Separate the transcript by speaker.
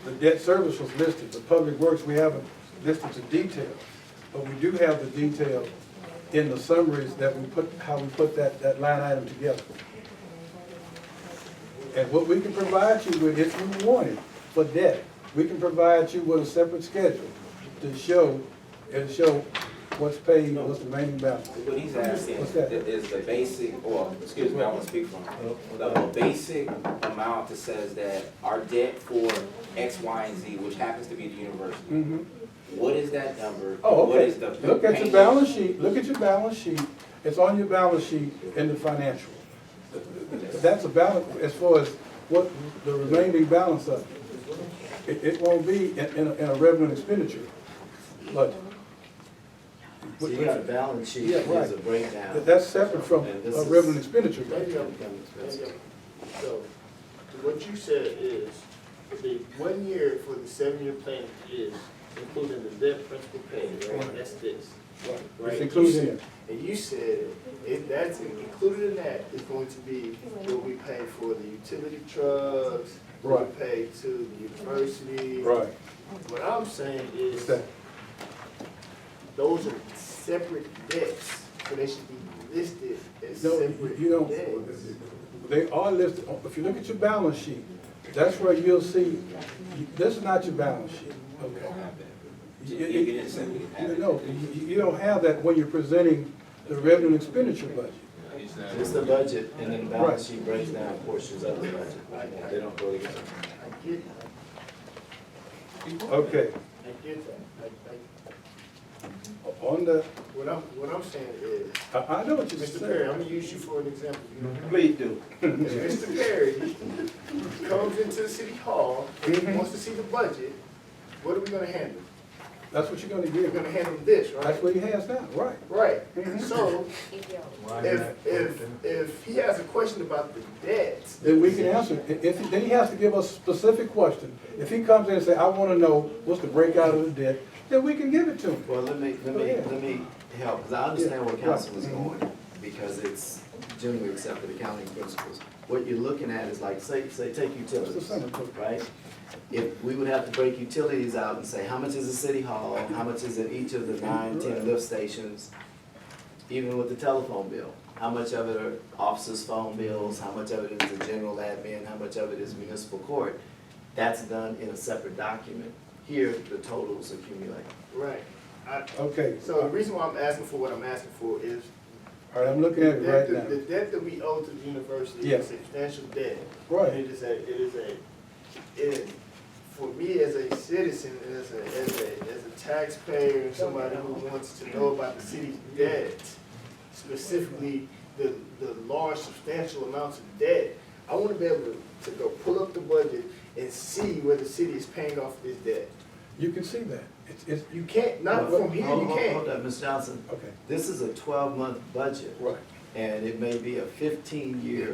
Speaker 1: The debt service was listed, the public works, we haven't listed the detail, but we do have the detail in the summaries that we put, how we put that, that line item together. And what we can provide you with, if you want it, for debt, we can provide you with a separate schedule to show, and show what's paid, what's the remaining balance.
Speaker 2: What he's asking
Speaker 1: What's that? Oh.
Speaker 2: is the basic, or, excuse me, I want to speak for him. The basic amount that says that our debt for X, Y, and Z, which happens to be the university,
Speaker 1: Mhm.
Speaker 2: what is that number?
Speaker 1: Oh,
Speaker 2: What
Speaker 1: okay.
Speaker 2: is the
Speaker 1: Look at your
Speaker 2: payment?
Speaker 1: balance sheet, look at your balance sheet, it's on your balance sheet in the financial. That's a balance, as far as what the remaining balance of it. It, it won't be in, in a, in a revenue and expenditure budget.
Speaker 3: So you got a balance sheet,
Speaker 1: Yeah,
Speaker 3: that gives a
Speaker 1: right.
Speaker 3: breakdown.
Speaker 1: That- That's separate from
Speaker 3: And
Speaker 1: a
Speaker 3: this is-
Speaker 1: revenue and expenditure
Speaker 4: Maybe
Speaker 1: budget.
Speaker 4: I'm, maybe I'm, so, what you said is, the one year for the seven-year plan is including the debt principal payment, right? That's this, right?
Speaker 1: It's included in.
Speaker 4: And you said, if that's included in that, it's going to be what we pay for the utility trucks, what
Speaker 1: Right.
Speaker 4: we pay to the university.
Speaker 1: Right.
Speaker 4: What I'm saying
Speaker 1: It's
Speaker 4: is,
Speaker 1: that.
Speaker 4: those are separate debts, so they should be listed as
Speaker 1: No,
Speaker 4: separate
Speaker 1: you you
Speaker 4: debts.
Speaker 1: don't, they are listed, if you look at your balance sheet, that's where you'll see, this is not your balance sheet, okay?
Speaker 2: You
Speaker 1: You-
Speaker 2: you didn't say we didn't have
Speaker 1: you-
Speaker 2: it.
Speaker 1: No, you, you don't have that when you're presenting the revenue and expenditure budget.
Speaker 3: It's the budget, and then the balance sheet breaks down portions of the budget. They don't really get it.
Speaker 4: I get,
Speaker 1: Okay,
Speaker 4: I get that, I, I
Speaker 1: on the,
Speaker 4: What I'm, what I'm saying is,
Speaker 1: I, I know what you're
Speaker 4: Mr. Perry, I'm
Speaker 1: saying.
Speaker 4: gonna use you for an example. you know.
Speaker 1: Please do.
Speaker 4: If Mr. Perry comes into the city hall, and
Speaker 1: Mm-hmm.
Speaker 4: he wants to see the budget, what are we gonna handle?
Speaker 1: That's what you're gonna
Speaker 4: We're
Speaker 1: give,
Speaker 4: gonna handle this,
Speaker 1: that's
Speaker 4: right?
Speaker 1: what he has now, right?
Speaker 4: Right,
Speaker 1: Mhm.
Speaker 4: so if, if, if he has a question about the debts,
Speaker 1: Then we can answer, it. if, then he has to give us specific question. If he comes in and say, I wanna know what's the breakout of the debt, then we can give it to him.
Speaker 3: Well, let me, let me, let me help, because I understand where
Speaker 1: Yeah,
Speaker 3: council is
Speaker 1: right.
Speaker 3: going, because it's generally accepted accounting principles. What you're looking at is like, say, say, take
Speaker 1: It's
Speaker 3: utilities,
Speaker 1: the same thing.
Speaker 3: right? If, we would have to break utilities out and say, how much is the city hall, how much is in each of the nine, ten lift stations? Even with the telephone bill, how much of it are officers' phone bills, how much of it is the general admin, how much of it is municipal court? That's done in a separate document. Here, the totals accumulate.
Speaker 4: right? I-
Speaker 1: Okay,
Speaker 4: So the
Speaker 1: all
Speaker 4: reason why I'm asking for what I'm asking for is,
Speaker 1: right, I'm looking at it
Speaker 4: that
Speaker 1: right
Speaker 4: the the
Speaker 1: now.
Speaker 4: debt that we owe to the university
Speaker 1: Yes.
Speaker 4: is substantial debt.
Speaker 1: Right,
Speaker 4: It is a, it is a, it, for me as a citizen, and as a, as a, as a taxpayer, and somebody who wants to know about the city's debt, specifically the, the large substantial amounts of debt, I wanna be able to, to go pull up the budget and see where the city is paying off this debt.
Speaker 1: you can see that. It's, it's,
Speaker 4: You can't, not from Uh, here,
Speaker 3: Hold-
Speaker 4: you
Speaker 3: hold- Hold
Speaker 4: can't.
Speaker 3: up, Ms. Johnson.
Speaker 1: okay,
Speaker 3: This is a twelve-month budget,
Speaker 1: right.
Speaker 3: and it may be a fifteen-year